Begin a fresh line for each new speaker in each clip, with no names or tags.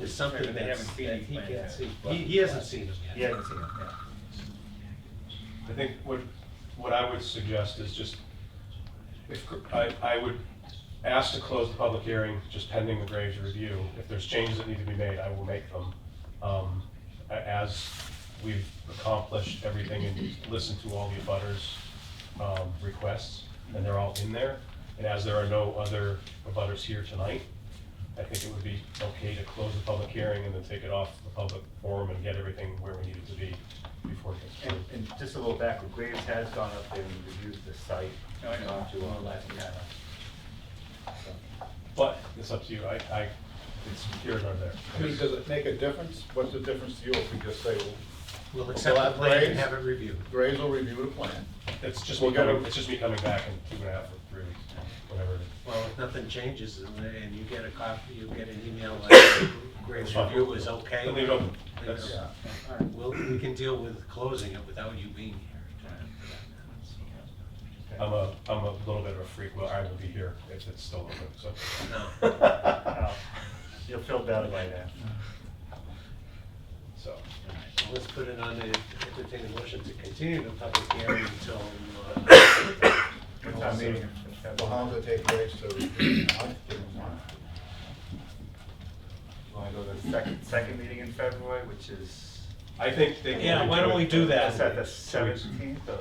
is something
They
that's,
haven't seen
that
these
he
plans
can't
yet.
see. He, he hasn't seen them yet.
He hasn't seen them, yeah.
I think what, what I would suggest is just, if, I, I would ask to close the public hearing, just pending the Graves review. If there's changes that need to be made, I will make them. Um, a- as we've accomplished everything and listened to all the abutters, um, requests, and they're all in there. And as there are no other abutters here tonight, I think it would be okay to close the public hearing and then take it off the public forum and get everything where we need it to be before it gets
And,
approved.
and just a little backward, Graves has gone up there and reviewed the site.
No, I know.
Gone to
uh,
our last, yeah. So,
But it's up to you, I, I, it's here or there.
I mean, does it make a difference? What's the difference to you if we just say, well,
We'll
Well,
accept the
that
plan and
raise-
have it reviewed.
Graves will review the plan?
It's just me
We'll get
coming,
a-
it's just me coming back in two and a half or three weeks, whatever. it is.
Well, if nothing changes and, they- and you get a copy, you get an email like Graves
It's fine.
review is okay.
Then leave it open. That's-
Yeah.
We'll, we can deal with closing it without you being here.
I'm a, I'm a little bit of a freak, well, I will be here if it's still open, so.
uh, You'll feel better by then.
So,
Well, Let's put it on the, entertain a motion to continue the public hearing until, uh,
It's our meeting in
Well, how
September.
long does it take Graves to review it now? Give him one.
Want to go to the second, second meeting in February, which is,
I think they. can
Yeah, why don't we do that?
is that the
Two weeks.
seventeenth or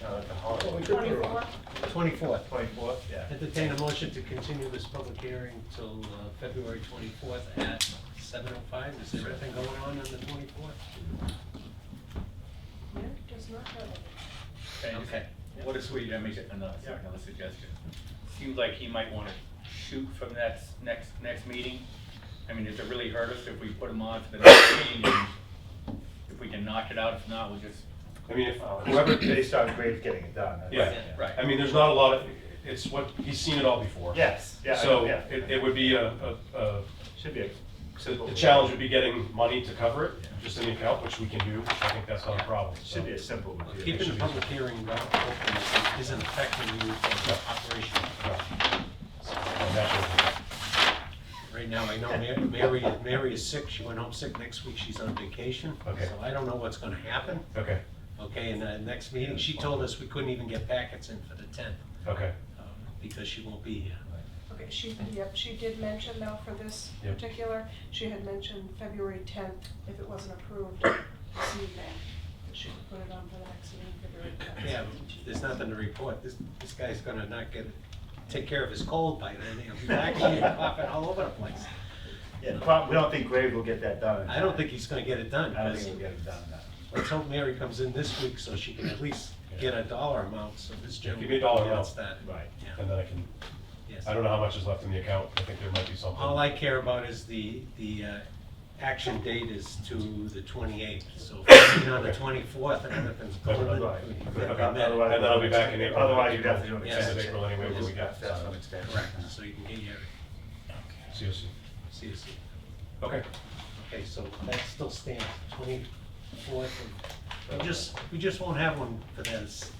the, uh, the
Well, we
holiday?
could put it on.
twenty-fourth.
Twenty-fourth, yeah.
Entertain a motion to continue this public hearing till uh, February twenty-fourth at seven oh five. Is there anything going on on the twenty-fourth?
No, does not have it.
Can I just-
Okay.
What is, wait, I make another, sorry, another suggestion. Seems like he might wanna shoot from that s- next, next meeting. I mean, does it really hurt us if we put him on for the next meeting? and If we can knock it out, if not, we'll just,
I mean, if
Uh,
whoever,
Based on Graves getting it done. that's-
yeah,
Right.
I mean, there's not a lot of, it's what, he's seen it all before.
Yes, yeah, I-
So
yeah.
it, it would be a, a, a
Should be a.
So the challenge would be getting money to cover it, just in the account, which we can do, I think that's not a problem. so.
Should be a simple review.
Keeping the public hearing open isn't affecting you from the operation.
Yeah. So that
Right now, I know Ma- Mary, Mary is sick. She went home sick. Next week, she's on vacation.
Okay.
So I don't know what's gonna happen.
would- Okay,
Okay, and the next meeting, she told us we couldn't even get packets in for the tenth, um,
okay,
because she won't be here.
Okay, she, yep, she did mention though for this
Yep.
particular, she had mentioned February tenth, if it wasn't approved this evening, that she would put it on for the next meeting, February tenth.
Yeah, there's nothing to report. This, this guy's gonna not get, take care of his cold by then. He'll be back here popping all over the place.
Yeah, the problem, we don't think Graves will get that done. in
I don't
time.
think he's gonna get it done.
I don't
'cause
think we'll get it done now.
Let's hope Mary comes in this week so she can at least get a dollar amount, so this
Give me
gentleman.
a dollar
gets
amount.
that.
Right.
Yeah,
and then I can,
yes.
I don't know how much is left in the account, I think there might be
All
something.
I care about is the, the uh, action date is to the 28th, so if it's on the 24th and everything's going. then
Right.
we-
Okay.
then we
Okay.
met.
And then I'll be back in April.
Otherwise, you'd have to do an
Yeah.
End of
extension.
April anyway, where we got,
That's
so,
an extension.
Correct, so you can get your
seriously,
CSC.
okay.
Okay, so that still stands, 24th. and- We just, we just won't have one for that 10th,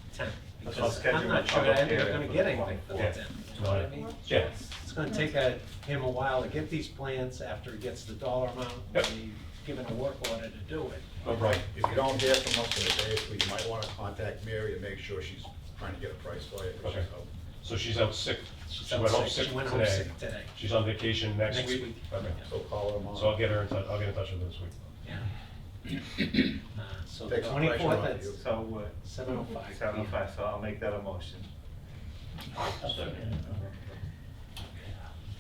Let's
because
schedule
I'm not
a
sure
public
I'm ever
hearing
gonna
for
get
the
anything for the
24th.
10th. You know what I mean?
Yeah.
It's gonna take uh, him a while to get these plans after he gets the dollar amount, and
Yep.
he's given a work order to do it.
Oh, right,
If you don't hear from us in a day, or two, you might want to contact Mary and make sure she's trying to get a price for you. which is
Okay.
how-
so she's out sick,
She's
she
out
went home
sick.
sick
She went home
today,
sick today.
she's on vacation next
Next
week,
week.
okay,
So call her tomorrow.
so I'll get her in touch, I'll get in touch with her this week.
Yeah. Uh, So
Takes the pressure
twenty-fourth,
off
that's
you.
So,
seven oh
uh,
five.
seven oh five, so I'll make that a motion.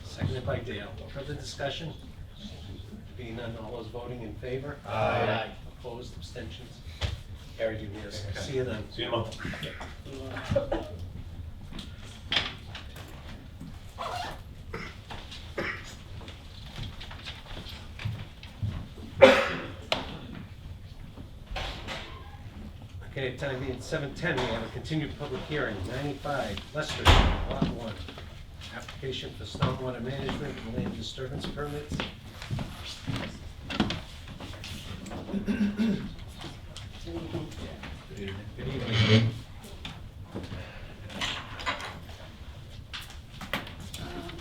Seconded by Dale. Further discussion? Being none, all those voting in favor?
Aye.
Opposed, abstentions? Carried unanimously. See you then.
See you in a month.
Okay, time being seven ten, we have a continued public hearing, ninety-five Lester, Street, lot one. Application for stormwater management and land disturbance permits.